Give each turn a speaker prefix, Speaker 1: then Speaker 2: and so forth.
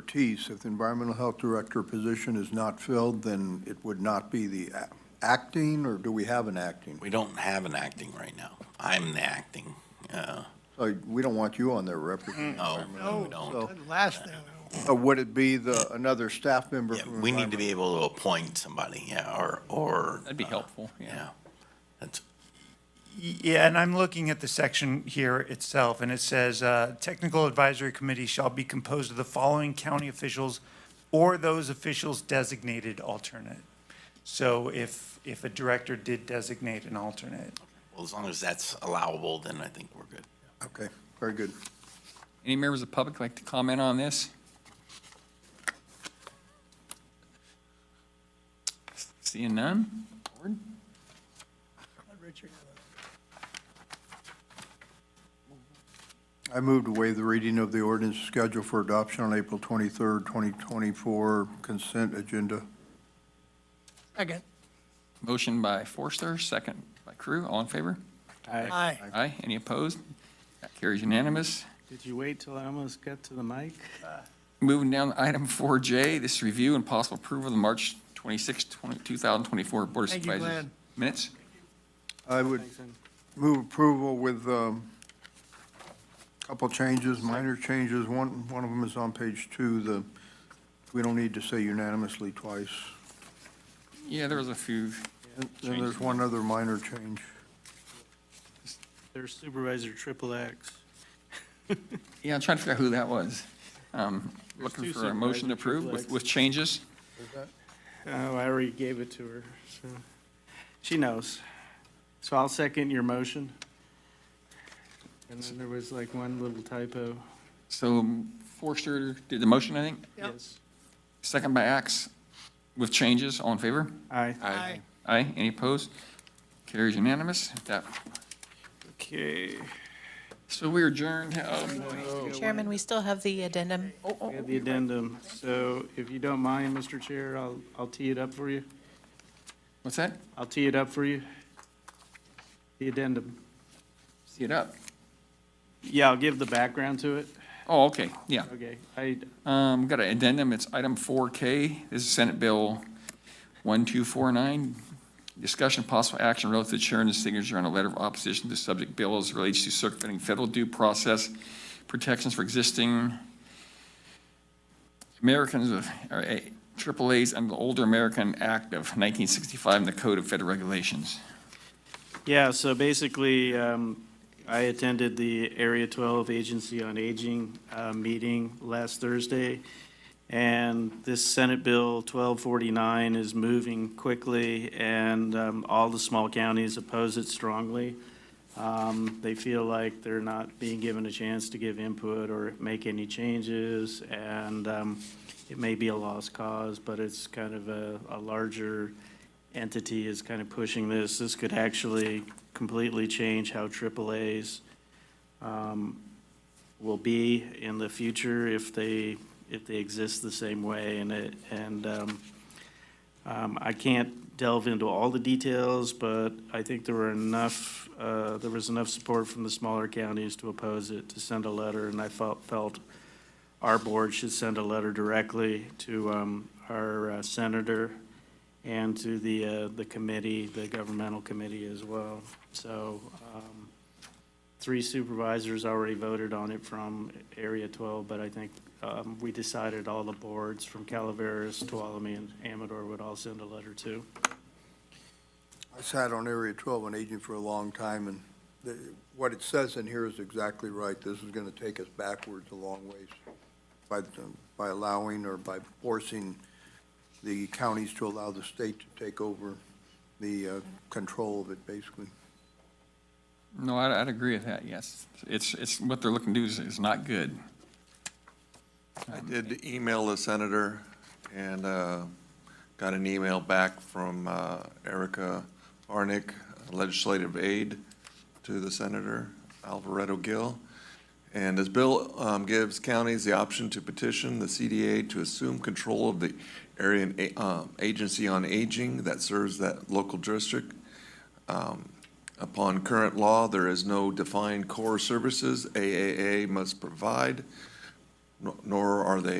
Speaker 1: expertise, if the environmental health director position is not filled, then it would not be the a- acting, or do we have an acting?
Speaker 2: We don't have an acting right now. I'm the acting. Uh,
Speaker 1: Uh, We don't want you on there representing.
Speaker 2: No,
Speaker 1: environmental
Speaker 2: no, we
Speaker 1: health.
Speaker 2: don't.
Speaker 3: Good Last thing.
Speaker 1: So, uh, Would it be the, another staff member?
Speaker 2: Yeah,
Speaker 1: from
Speaker 2: we need to
Speaker 1: environmental-
Speaker 2: be able to appoint somebody, yeah, or, or. uh,
Speaker 4: That'd be helpful, yeah.
Speaker 2: Yeah. That's,
Speaker 5: Yeah, and I'm looking at the section here itself, and it says, uh, "Technical Advisory Committee shall be composed of the following county officials or those officials designated alternate." So if, if a director did designate an alternate,
Speaker 2: well, as long as that's allowable, then I think we're good.
Speaker 1: Okay, very good.
Speaker 4: Any members of the public like to comment on this? Seeing none? Board?
Speaker 3: Richard,
Speaker 1: I move to waive the reading of the ordinance scheduled for adoption on April 23rd, 2024, consent agenda.
Speaker 3: Second.
Speaker 4: Motion by Forster, second by Crew. All in favor?
Speaker 3: Aye.
Speaker 4: Aye. Any opposed? That carries unanimous.
Speaker 6: Did you wait till I almost got to the mic?
Speaker 4: Moving down to item 4J, this is review and possible approval of the March 26, 20 2024 Board of
Speaker 3: Thank you,
Speaker 4: Supervisors
Speaker 3: Glenn.
Speaker 4: minutes.
Speaker 1: I would move approval with a couple changes, minor changes. One, one of them is on page two, the, we don't need to say unanimously twice.
Speaker 4: Yeah, there was a few.
Speaker 1: And then there's one other minor change.
Speaker 6: There's Supervisor Triple X.
Speaker 4: Yeah, I'm trying to figure out who that was. Um,
Speaker 6: There's
Speaker 4: Looking
Speaker 6: two
Speaker 4: for a motion to
Speaker 6: supervisors,
Speaker 4: approve
Speaker 6: triple
Speaker 4: with,
Speaker 6: X.
Speaker 4: with changes.
Speaker 6: Oh, I already gave it to her, so she knows. So I'll second your motion. And then there was like one little typo.
Speaker 4: So Forster did the motion, I think,
Speaker 3: Yep.
Speaker 6: Yes.
Speaker 4: second by Axe, with changes. All in favor?
Speaker 6: Aye.
Speaker 3: Aye.
Speaker 4: Aye. Any opposed? Carries unanimous. That,
Speaker 6: Okay.
Speaker 4: so we adjourned. Um,
Speaker 7: Chairman, we still have the addendum.
Speaker 6: We have the addendum. So if you don't mind, Mr. Chair, I'll, I'll tee it up for you.
Speaker 4: What's that?
Speaker 6: I'll tee it up for you. The addendum.
Speaker 4: See it up.
Speaker 6: Yeah, I'll give the background to it.
Speaker 4: Oh, okay, yeah.
Speaker 6: Okay. I,
Speaker 4: Um, got an addendum, it's item four K, this is Senate Bill one two four nine. Discussion of possible action relative to chairman's signature on a letter of opposition to subject bill as relates to circumventing federal due process protections for existing Americans of, or A- triple A's under the Older American Act of nineteen sixty-five and the Code of Federal Regulations.
Speaker 6: Yeah, so basically, um, I attended the Area 12 Agency on Aging uh, meeting last Thursday, and this Senate Bill 1249 is moving quickly, and um, all the small counties oppose it strongly. Um, They feel like they're not being given a chance to give input or make any changes, and um, it may be a lost cause, but it's kind of a a larger entity is kind of pushing this. This could actually completely change how AAAs um, will be in the future if they, if they exist the same way. And it, and um, um, I can't delve into all the details, but I think there were enough, uh, there was enough support from the smaller counties to oppose it, to send a letter. And I felt, felt our board should send a letter directly to um, our uh, senator and to the, uh, the committee, the governmental committee as well. So, um, three supervisors already voted on it from Area 12, but I think, um, we decided all the boards from Calaveras, Tuolumne, and Amador would all send a letter too.
Speaker 1: I sat on Area 12 on aging for a long time, and the- what it says in here is exactly right. This is going to take us backwards a long ways by, the- by allowing or by forcing the counties to allow the state to take over the uh, control of it, basically.
Speaker 4: No, I'd, I'd agree with that, yes. It's, it's, what they're looking to do is, is not good.
Speaker 8: I did email the senator and uh, got an email back from uh, Erica Arnick, legislative aide to the senator, Alvaretto Gill. And this bill um, gives counties the option to petition the CDA to assume control of the area and a- um, agency on aging that serves that local district. Um, Upon current law, there is no defined core services AAA must provide nor- nor are they